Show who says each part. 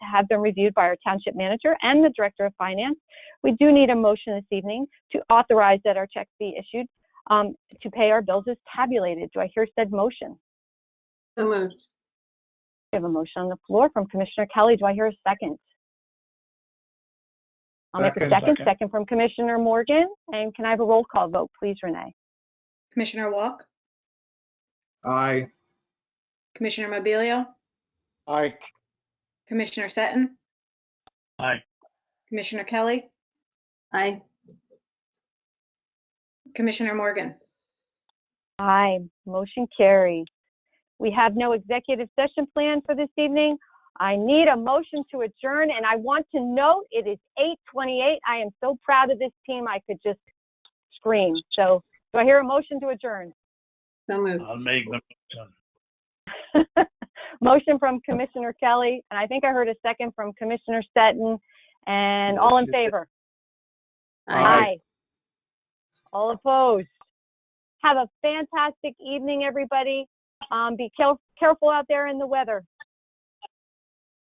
Speaker 1: have been reviewed by our township manager and the director of finance. We do need a motion this evening to authorize that our checks be issued um, to pay our bills as tabulated. Do I hear said motion?
Speaker 2: So moved.
Speaker 1: We have a motion on the floor from Commissioner Kelly. Do I hear a second? I'll make a
Speaker 3: Second.
Speaker 1: second, second from Commissioner Morgan. And can I have a roll call vote, please, Renee?
Speaker 2: Commissioner Walk,
Speaker 3: Aye.
Speaker 2: Commissioner Mobilio,
Speaker 3: Aye.
Speaker 2: Commissioner Seton,
Speaker 3: Aye.
Speaker 2: Commissioner Kelly. Aye. Commissioner Morgan.
Speaker 1: Aye, motion carried. We have no executive session planned for this evening. I need a motion to adjourn, and I want to note it is 8:28. I am so proud of this team, I could just scream. So do I hear a motion to adjourn?
Speaker 2: So
Speaker 4: I'll
Speaker 2: moved.
Speaker 4: make the
Speaker 1: Motion from Commissioner Kelly, and I think I heard a second from Commissioner Stetton, and all in favor?
Speaker 3: Aye.
Speaker 1: All opposed? Have a fantastic evening, everybody. Um, Be care- careful out there in the weather.